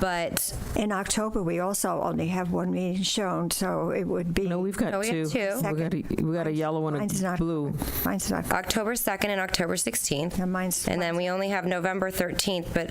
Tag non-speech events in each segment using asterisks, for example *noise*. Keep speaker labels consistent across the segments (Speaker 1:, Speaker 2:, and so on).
Speaker 1: But
Speaker 2: In October, we also only have one meeting shown, so it would be.
Speaker 3: No, we've got
Speaker 1: No, we have
Speaker 3: two.
Speaker 1: two.
Speaker 3: We got a, we got a yellow and
Speaker 2: Mine's
Speaker 3: a
Speaker 2: not-
Speaker 3: blue.
Speaker 2: Mine's not,
Speaker 1: October 2nd and October 16th.
Speaker 2: yeah, mine's.
Speaker 1: And then we only have November 13th, but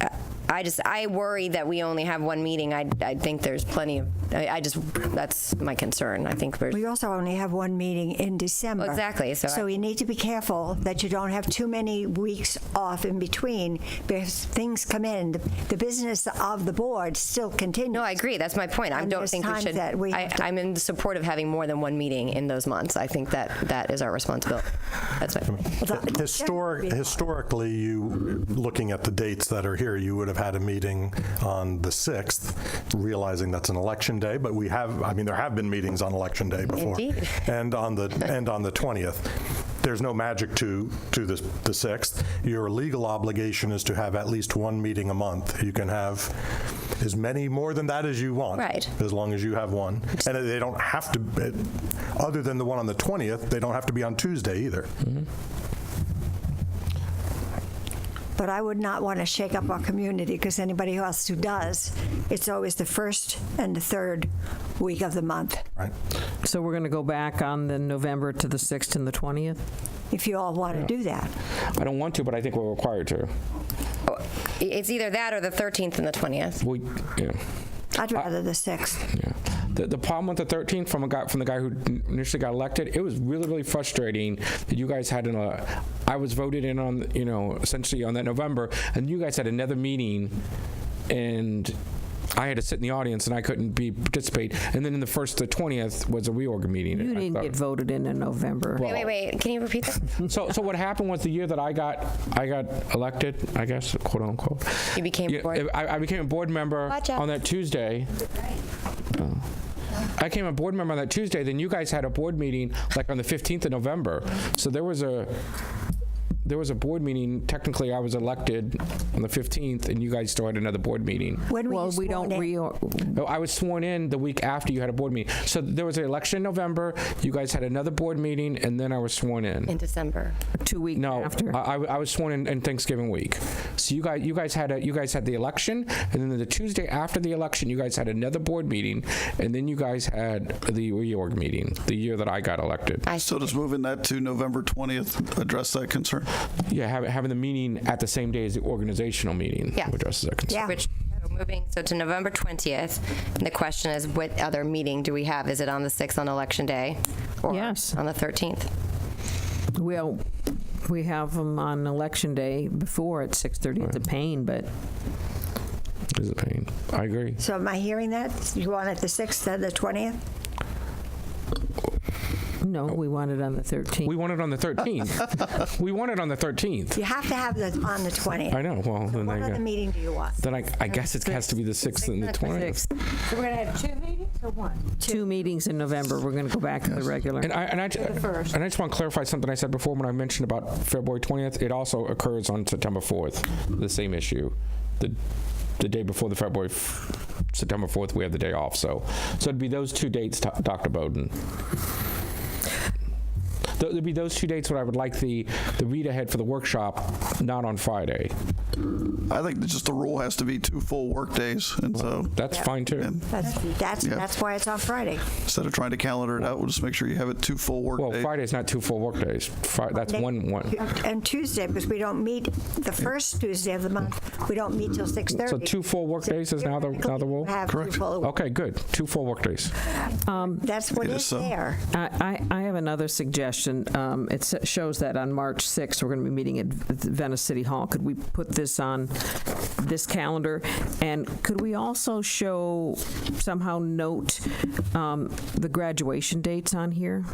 Speaker 1: uh, I just, I worry that we only have one meeting. I, I think there's plenty of, I, I just, that's my concern. I think we're,
Speaker 2: We also only have one meeting in December.
Speaker 1: Exactly, so I-
Speaker 2: So you need to be careful that you don't have too many weeks off in between because things come in. The- The business of the board still continues.
Speaker 1: no, I agree. That's my point. I
Speaker 2: And
Speaker 1: don't
Speaker 2: there's
Speaker 1: think we
Speaker 2: times
Speaker 1: should,
Speaker 2: that we
Speaker 1: I,
Speaker 2: have to-
Speaker 1: I'm in support of having more than one meeting in those months. I think that, that is our responsibility. That's my point.
Speaker 2: That would
Speaker 4: Historic,
Speaker 2: be-
Speaker 4: historically, you, looking at the dates that are here, you would have had a meeting on the 6th, realizing that's an election day, but we have, I mean, there have been meetings on election day before.
Speaker 1: Indeed.
Speaker 4: And on the, and on the 20th. There's no magic to, to the, the 6th. Your legal obligation is to have at least one meeting a month. You can have as many, more than that as you want.
Speaker 1: Right.
Speaker 4: As long as you have one. And they don't have to, it- other than the one on the 20th, they don't have to be on Tuesday either.
Speaker 2: But I would not want to shake up our community because anybody else who does, it's always the first and the third week of the month.
Speaker 4: Right.
Speaker 3: So we're going to go back on the November to the 6th and the 20th?
Speaker 2: If you all want to do that.
Speaker 5: I don't want to, but I think we're required to.
Speaker 1: Oh, It's either that or the 13th and the 20th.
Speaker 5: We, yeah,
Speaker 2: I'd
Speaker 1: Uh,
Speaker 2: rather the 6th.
Speaker 5: yeah. The, the problem with the 13th from a guy from the guy who n- initially got elected, it was really really frustrating that you guys had an. Uh, I was voted in on you know essentially on that November, and you guys had another meeting, and. I had to sit in the audience and I couldn't be participate. And then in the first, the twentieth was a reorg meeting.
Speaker 3: You
Speaker 5: I
Speaker 3: didn't
Speaker 5: thought-
Speaker 3: get voted in in November.
Speaker 1: Wait, wait, wait. Can you repeat that?
Speaker 5: so, so what happened was the year that I got I got elected, I guess, quote unquote.
Speaker 1: You became
Speaker 5: Yeah,
Speaker 1: board-
Speaker 5: I, I became a board member
Speaker 1: Watch out.
Speaker 5: on that Tuesday. Oh. I became a board member on that Tuesday. Then you guys had a board meeting like on the 15th of November. So there was a there was a board meeting. Technically, I was elected on the 15th, and you guys still had another board meeting.
Speaker 2: When were you
Speaker 3: Well, we don't
Speaker 2: sworn in?
Speaker 3: reor,
Speaker 5: No, I was sworn in the week after you had a board meeting. So there was an election in November. You guys had another board meeting, and then I was sworn in.
Speaker 1: In December.
Speaker 3: two weeks
Speaker 5: No,
Speaker 3: after.
Speaker 5: I, I w- I was sworn in, in Thanksgiving week. So you guys, you guys had a, you guys had the election, and then the Tuesday after the election, you guys had another board meeting, and then you guys had the reorg meeting the year that I got elected.
Speaker 6: So does moving that to November 20th address that concern?
Speaker 5: Yeah, having, having the meeting at the same day as the organizational meeting.
Speaker 1: Yeah.
Speaker 5: Which is a concern.
Speaker 2: Yeah.
Speaker 1: Which, so moving, so to November 20th, and the question is, what other meeting do we have? Is it on the 6th on Election Day? or
Speaker 3: Yes.
Speaker 1: On the 13th?
Speaker 3: Well, we have them on election day before at 6:30 at the Payne, but
Speaker 5: It's a pain. I agree.
Speaker 2: So am I hearing that? You want it the 6th and the 20th?
Speaker 3: no, we want it on the 13th.
Speaker 5: We won it on the *laughs* 13th. we won it on the 13th.
Speaker 2: You have to have the, on the 20th.
Speaker 5: I know. Well, then
Speaker 2: What
Speaker 5: I,
Speaker 2: other
Speaker 5: got-
Speaker 2: meeting do you want?
Speaker 5: then I, I guess it has to be the 6th and the 20th.
Speaker 7: So we're going to have two meetings or one?
Speaker 3: Two meetings in November, we're going to go back to the regular.
Speaker 5: And I, and I, and I just want to clarify something I said before when I mentioned about February 20th. It also occurs on September 4th, the same issue. The, the day before the February, f- September 4th, we have the day off. So, so it'd be those two dates, Do- Dr. Bowden. Th- It'd be those two dates where I would like the, the read ahead for the workshop, not on Friday.
Speaker 6: I think that just the rule has to be two full workdays, and so
Speaker 5: That's fine too.
Speaker 2: That's, that's,
Speaker 6: Yeah.
Speaker 2: that's why it's on Friday.
Speaker 6: instead of trying to calendar it out, we'll just make sure you have it two full
Speaker 5: Well,
Speaker 6: workdays.
Speaker 5: Friday's not two full workdays. Fri- that's one, one.
Speaker 2: And Tuesday, because we don't meet the first Tuesday of the month, we don't meet till 6:30.
Speaker 5: So two full workdays is now the, now the rule?
Speaker 2: Have two full-
Speaker 5: Okay, good. Two full workdays.
Speaker 2: That's what
Speaker 6: It is
Speaker 2: is
Speaker 6: so.
Speaker 2: there.
Speaker 3: I, I I have another suggestion. Um, It s- shows that on March 6th, we're going to be meeting at V- Venice City Hall. Could we put this on this calendar? And could we also show, somehow note um, the graduation dates on here?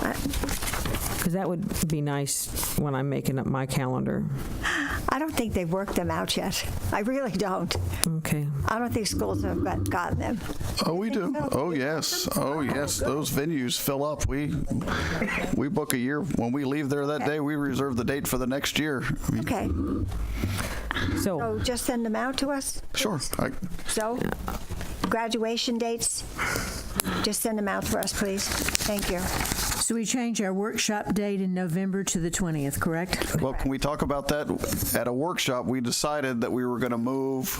Speaker 3: Because that would be nice when I'm making up my calendar.
Speaker 2: I don't think they've worked them out yet. I really don't.
Speaker 3: Okay.
Speaker 2: I don't think schools have got- gotten them.
Speaker 6: Oh, we do. Oh, yes. Oh, yes. Those venues fill up. We we book a year. When we leave there that day, we reserve the date for the next year. I mean,
Speaker 2: Okay,
Speaker 3: So
Speaker 2: so just send them out to us?
Speaker 6: Sure. I-
Speaker 2: So, graduation dates, just send them out for us, please. Thank you.
Speaker 8: So we change our workshop date in November to the 20th, correct?
Speaker 6: Well, can we talk about that? At a workshop, we decided that we were going to move